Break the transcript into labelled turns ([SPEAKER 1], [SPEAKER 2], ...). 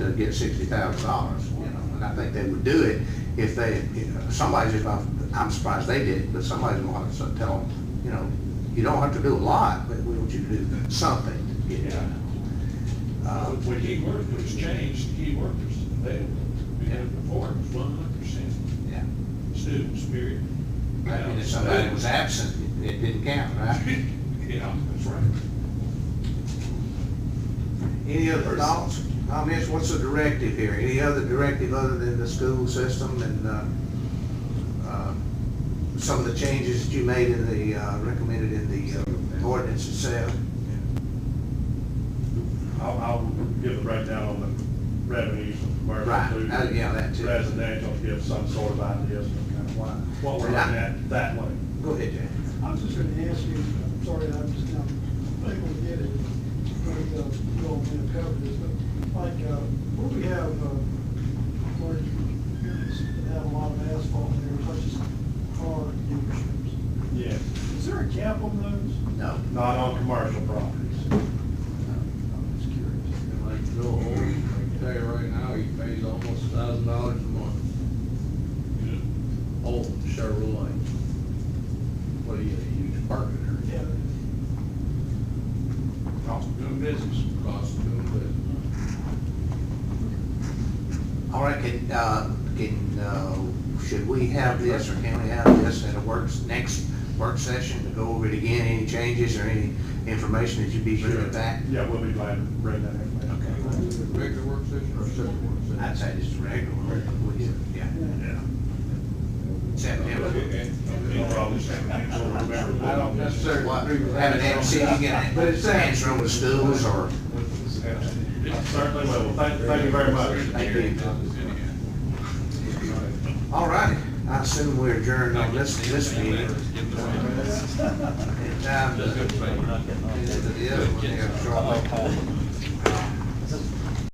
[SPEAKER 1] to get sixty thousand dollars, you know, and I think they would do it if they, you know, somebody's, if I'm, I'm surprised they did, it, but somebody's gonna have to tell them, you know, you don't have to do a lot, but we want you to do something, you know. Uh,
[SPEAKER 2] Um, When he worked, was changed, he worked, they, we had before, it was one hundred percent
[SPEAKER 1] yeah.
[SPEAKER 2] student spirit.
[SPEAKER 1] I mean, if somebody was absent, it- it didn't count, right?
[SPEAKER 2] Yeah, that's right.
[SPEAKER 1] Any other thoughts, comments, what's the directive here? Any other directive other than the school system and, uh, uh, some of the changes that you made in the, uh, recommended in the uh, ordinance itself?
[SPEAKER 3] I'll, I'll give a breakdown on the revenues of commercial.
[SPEAKER 1] Right,
[SPEAKER 3] food,
[SPEAKER 1] uh, yeah, that too.
[SPEAKER 3] Residential, give some sort of ideas of kind of what, what we're looking at that way.
[SPEAKER 1] Go ahead, Jack.
[SPEAKER 4] I'm just gonna ask you, I'm sorry, I'm just not able to get it, but, uh, you all may have covered this, but like, uh, where we have, uh, where you have a lot of asphalt there, such as car dealerships,
[SPEAKER 3] Yeah.
[SPEAKER 4] is there a cap on those?
[SPEAKER 1] No.
[SPEAKER 3] Not on commercial properties.
[SPEAKER 4] I'm just curious.
[SPEAKER 5] And like Joe Holden, I can tell you right now, he pays almost a thousand dollars a month, Holden Chevrolet. What do you, a huge partner?
[SPEAKER 4] Yeah,
[SPEAKER 2] Cost of doing business.
[SPEAKER 5] Cost of doing business.
[SPEAKER 1] All right, can, uh, can, uh, should we have this or can we have this at a works, next work session to go over it again? Any changes or any information that you'd be sure of that?
[SPEAKER 3] Yeah, we'll be glad to bring that information.
[SPEAKER 1] Okay.
[SPEAKER 5] Regular work session or separate work session?
[SPEAKER 1] I'd say just a regular, one. We- yeah,
[SPEAKER 3] Yeah.
[SPEAKER 1] September.
[SPEAKER 3] We'll probably send that, so remember.
[SPEAKER 5] I don't necessarily
[SPEAKER 1] What,
[SPEAKER 5] agree with
[SPEAKER 1] have
[SPEAKER 5] that.
[SPEAKER 1] an MC, you get
[SPEAKER 5] But it's
[SPEAKER 1] an
[SPEAKER 5] sad.
[SPEAKER 1] answer on the schools or?
[SPEAKER 3] Certainly will. Thank, thank you very much.
[SPEAKER 1] Thank you. All righty, I assume we're adjourned on this, this meeting. And, um,
[SPEAKER 2] That's good.
[SPEAKER 1] and, uh,